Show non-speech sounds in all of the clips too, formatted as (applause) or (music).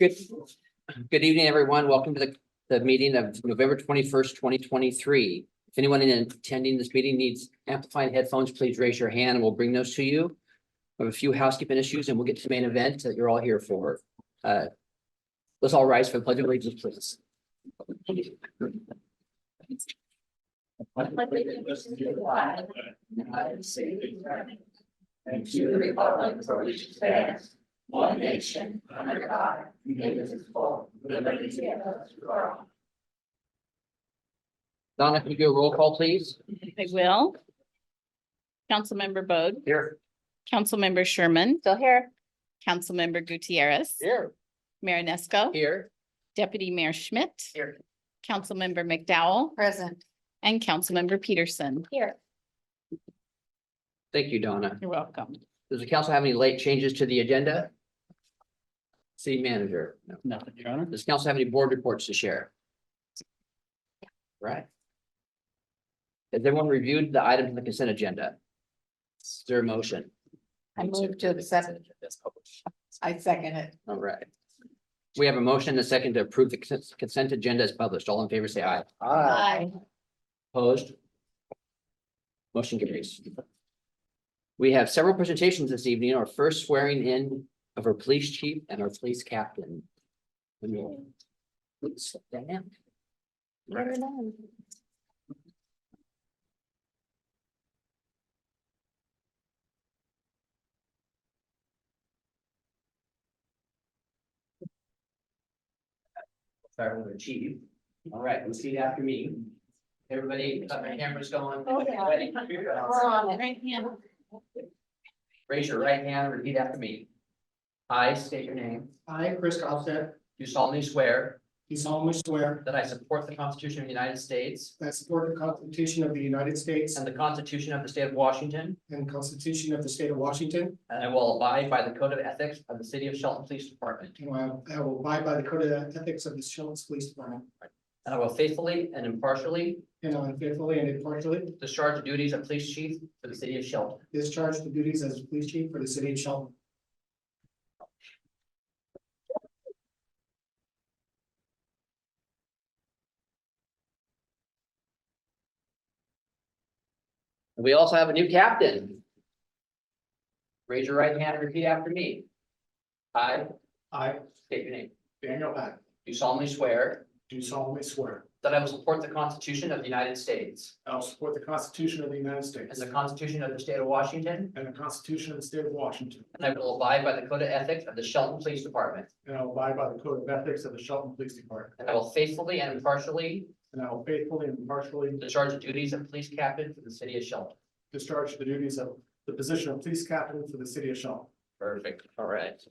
Good, good evening, everyone. Welcome to the, the meeting of November twenty-first, twenty twenty-three. If anyone in attending this meeting needs amplified headphones, please raise your hand and we'll bring those to you. We have a few housekeeping issues and we'll get to the main event that you're all here for. Uh, Let's all rise for the pledge of allegiance, please. And to the republic for which it stands, one nation, under God, indivisible, with liberty and justice for all. Donna, can you do a roll call, please? I will. Councilmember Bode, Here. Councilmember Sherman. Still here. Councilmember Gutierrez. Here. Marinesco. Here. Deputy Mayor Schmidt. Here. Councilmember McDowell. Present. And Councilmember Peterson. Here. Thank you, Donna. You're welcome. Does the council have any late changes to the agenda? City manager? No. Nothing, Your Honor. Does council have any board reports to share? Right. Has everyone reviewed the items on the consent agenda? Is there a motion? I move to accept. I second it. All right. We have a motion and a second to approve the consent- consent agenda as published. All in favor, say aye. Aye. Opposed? Motion carries. We have several presentations this evening, our first swearing in of our police chief and our police captain. When you'll- Oops, that down. Right. Start with the chief. All right, let's see after me. Everybody, uh, cameras going. Oh, We're on it. Right hand. Raise your right hand and repeat after me. I state your name, I, Chris Goffstead, do solemnly swear do solemnly swear that I support the Constitution of the United States that I support the Constitution of the United States and the Constitution of the State of Washington, and the Constitution of the State of Washington, and I will abide by the Code of Ethics of the City of Shelton Police Department, and I I will abide by the code of ethics of the Shelton Police Department, and I will faithfully and impartially and I will faithfully and impartially discharge the duties of police chief for the City of Shelton. discharge the duties as police chief for the city of Shelton. We also have a new captain. Raise your right hand and repeat after me. I I, state your name, Daniel Beck, do solemnly swear do solemnly swear that I will support the Constitution of the United States that I will support the Constitution of the United And States the Constitution of the State of Washington. and the Constitution of the State of Washington, And I will abide by the Code of Ethics of the Shelton Police Department. and I will abide by the code of ethics of the Shelton Police Department, And I will faithfully and impartially and I will faithfully and impartially discharge the duties of police captain for the city of Shelton. discharge the duties of the position of police captain for the city of Shelton. Perfect. All right.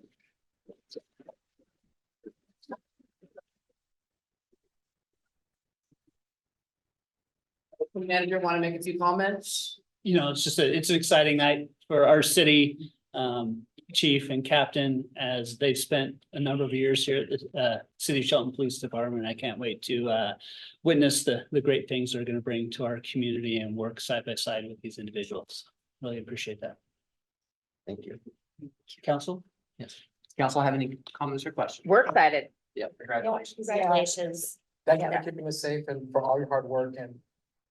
Manager, want to make a few comments? You know, it's just a, it's an exciting night for our city um chief and captain as they've spent a number of years here at the uh City of Shelton Police Department. I can't wait to uh witness the the great things they're gonna bring to our community and work side by side with these individuals. Really appreciate that. Thank you. Council? Council have any comments or questions? We're excited. Yeah, congratulations. Congratulations. Thank you for keeping us safe and for all your hard work and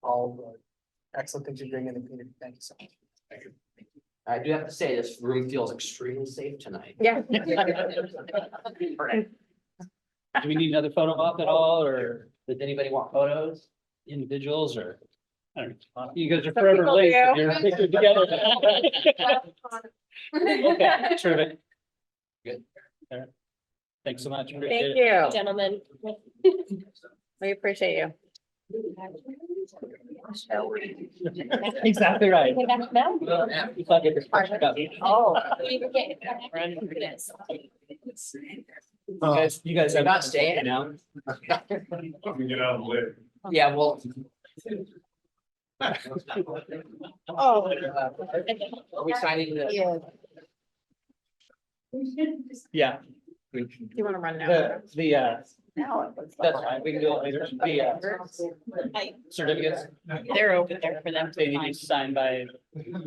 all the excellent things you bring in the community. Thank you so much. I do have to say, this room feels extremely safe tonight. Yeah. Does Do we need another photo op at all or anybody want (laughs) photos? individuals or? I don't know. You guys are Some forever people late. do. if (laughs) You're pictured together. Okay, terrific. Good. All right. Thanks so much. Appreciate it. Thank you. Gentlemen. We appreciate you. Exactly right. Came back now? If I get this question up, you Oh. We were getting back for this. guys- You guys They're have. not staying now. Get out of the way. Yeah, well. Oh. Are we signing the? Yeah. Yeah, You want to run now? the, the, uh, Now. it looks like- that's fine. We can do it later. The uh, certificates, (laughs) They're over there for them they to need to be find. signed by,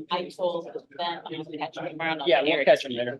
I told them. I'll catch them tomorrow and I'll yeah, share we'll it. catch them later.